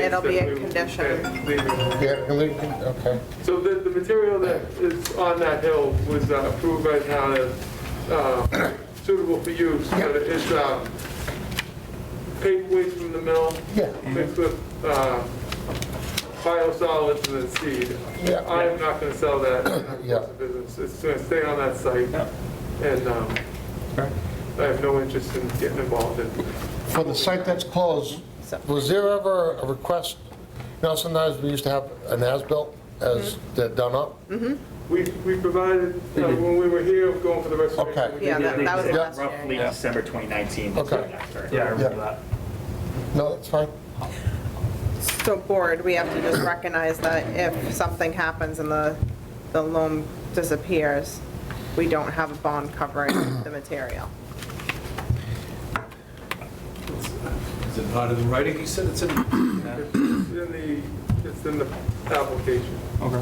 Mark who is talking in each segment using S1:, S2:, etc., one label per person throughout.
S1: it'll be a
S2: that we-
S1: condition.
S2: that they remove.
S3: Yeah, okay.
S2: So the, the material that is on that hill was uh, approved by town as uh, suitable for use, but it's um, paper waste from the mill
S3: Yeah.
S2: mixed with uh, biosolids and then seed.
S3: Yeah.
S2: I am not going to sell that in our
S3: Yeah.
S2: course of business. It's going to stay on that site, and um,
S4: Okay.
S2: I have no interest in getting involved in
S3: For the site that's closed, was there ever a request, you know, sometimes we used to have an as-built as
S1: Mm-hmm.
S3: they're done up?
S2: We, we provided, uh, when we were here, going for the restoration.
S3: Mm-hmm. Okay.
S2: we did
S1: Yeah, that that was
S3: Yeah.
S1: last year.
S5: Roughly
S4: Yeah.
S5: December 2019.
S3: Okay.
S4: Yeah, I remember
S3: Yeah.
S4: that.
S1: Mm-hmm.
S3: No, it's fine.
S1: So board, we have to just recognize that if something happens and the, the loan disappears, we don't have a bond covering the material.
S6: Is it not in writing? You said it's in.
S2: It's in the, it's in the application.
S4: Okay.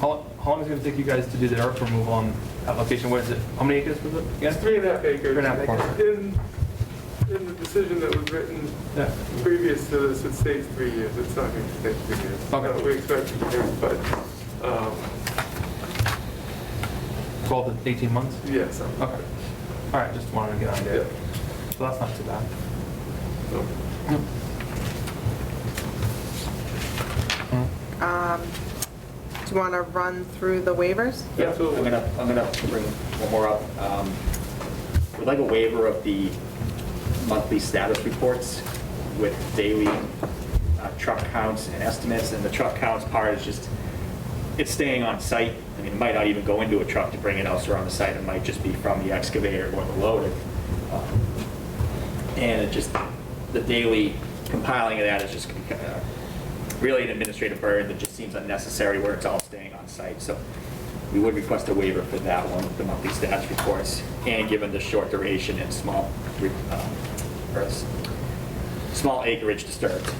S4: How, how long is it gonna take you guys to do the earth removal on application? What is it? How many acres was it?
S2: It's
S4: again?
S2: three and a half acres.
S4: Three and a half acres.
S2: In, in the decision that was written
S4: Yeah.
S2: previous to this, it states three years. It's not going to take three years.
S4: Okay.
S2: Uh, We expect it to, but, um,
S4: 12 to 18 months?
S2: yes.
S4: Okay. All right, just wanted to get on
S2: Yeah.
S4: there. So that's not too bad.
S2: So,
S1: Um, Do you want to run through the waivers?
S5: Yeah, I'm
S2: Absolutely.
S5: gonna, I'm gonna bring one more up. Um, We'd like a waiver of the monthly status reports with daily uh, truck counts and estimates, and the truck counts part is just, it's staying on site. I mean, it might not even go into a truck to bring it elsewhere on the site, it might just be from the excavator or the loader. Um, And it just, the daily compiling of that is just uh, really an administrative burden that just seems unnecessary where it's all staying on site. So we would request a waiver for that one, with the monthly status reports, and given the short duration and small, re- um, or s- small acreage disturbed.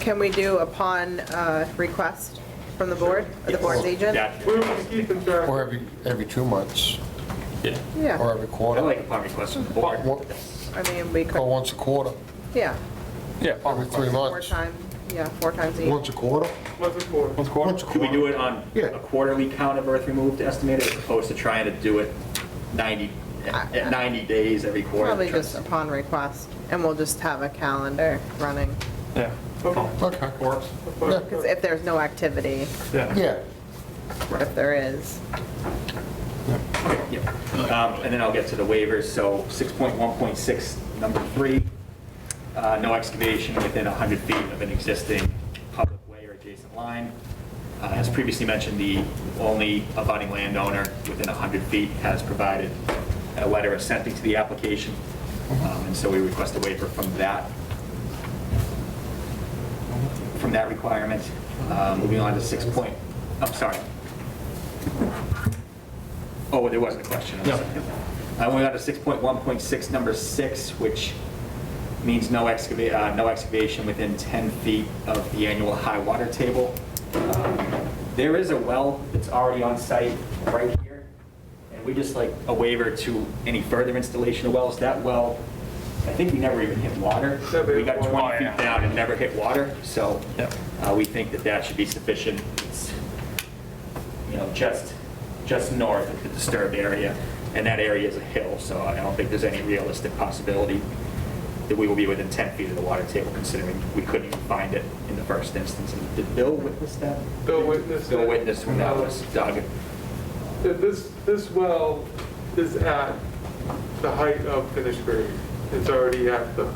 S1: Can we do upon uh, request from the board, or the board's agent?
S5: That-
S2: We will keep in track.
S3: Or every, every two months, or
S1: Yeah,
S3: every
S5: I like
S3: quarter,
S5: upon request from the board.
S3: What-
S1: I mean, we
S3: or
S1: could,
S3: once a quarter,
S1: yeah,
S4: Yeah.
S3: every three
S1: four
S3: months.
S1: times, yeah, four times a year.
S3: Once a quarter?
S2: Once a quarter.
S4: Once a quarter?
S5: Could we do it on
S3: Yeah.
S5: a quarterly count of earth removed estimated, as opposed to trying to do it 90, at at 90 days every quarter?
S1: Probably just upon request, and we'll just have a calendar running.
S4: Yeah.
S2: Okay.
S3: Okay.
S4: Works.
S1: Because if there's no activity,
S4: Yeah.
S3: Yeah,
S1: if there is,
S5: Yep. Um, And then I'll get to the waivers. So 6.1.6, number three, uh, no excavation within 100 feet of an existing public way or adjacent line. Uh, As previously mentioned, the only abutting landowner within 100 feet has provided a letter assenting to the application. Um, And so we request a waiver from that from that requirement. Uh, Moving on to 6 point, I'm sorry. Oh, there wasn't a question. I'm
S4: No.
S5: sorry. Uh, Moving on to 6.1.6, number 6, which means no excavate, no excavation within 10 feet of the annual high water table. Um, There is a well that's already on site right here, and we just like a waiver to any further installation of wells. That well, I think we never even hit water.
S2: Never hit
S5: We got
S2: water.
S5: 20 feet
S4: Oh, yeah.
S5: down down and never hit water, so
S4: Yep.
S5: uh, we think that that should be sufficient. It's, You know, just, just north of the disturbed area, and that area is a hill, so I don't think there's any realistic possibility that we will be within 10 feet of the water table, considering we couldn't even find it in the first instance. And Did Bill witness that?
S2: Bill witnessed
S5: Bill
S2: it.
S5: witnessed when that was dug.
S2: That This, this well is at the height of finished grade. It's already at the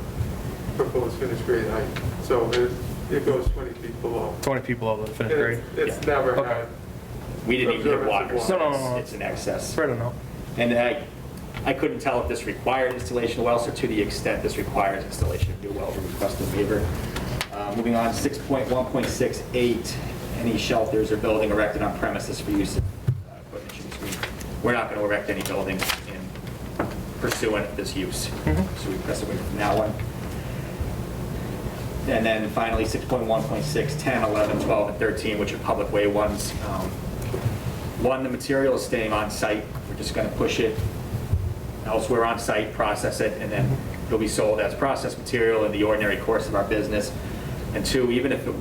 S2: proposed finished grade height. So it, it goes 20 feet below.
S4: 20 people over the
S2: And
S4: finish grade.
S2: it's- It's never
S4: Okay.
S2: had
S5: We didn't even hit
S2: Observance of
S5: water,
S2: water.
S5: so
S4: No, no, no,
S5: it's-
S4: no.
S5: it's an excess.
S4: Fair enough.
S5: And I, I couldn't tell if this required installation of wells, or to the extent this requires installation of new wells, we request a waiver. Uh, Moving on, 6.1.68, any shelters or building erected on premises for use of uh, equipment should be screened. We're not going to erect any buildings in pursuant of this use, so we request a waiver from that one. And then finally, 6.1.6, 10, 11, 12, and 13, which are public way ones. Um, One, the material is staying on site. We're just going to push it elsewhere on site, process it, and then it'll be sold as processed material in the ordinary course of our business. And two, even if it were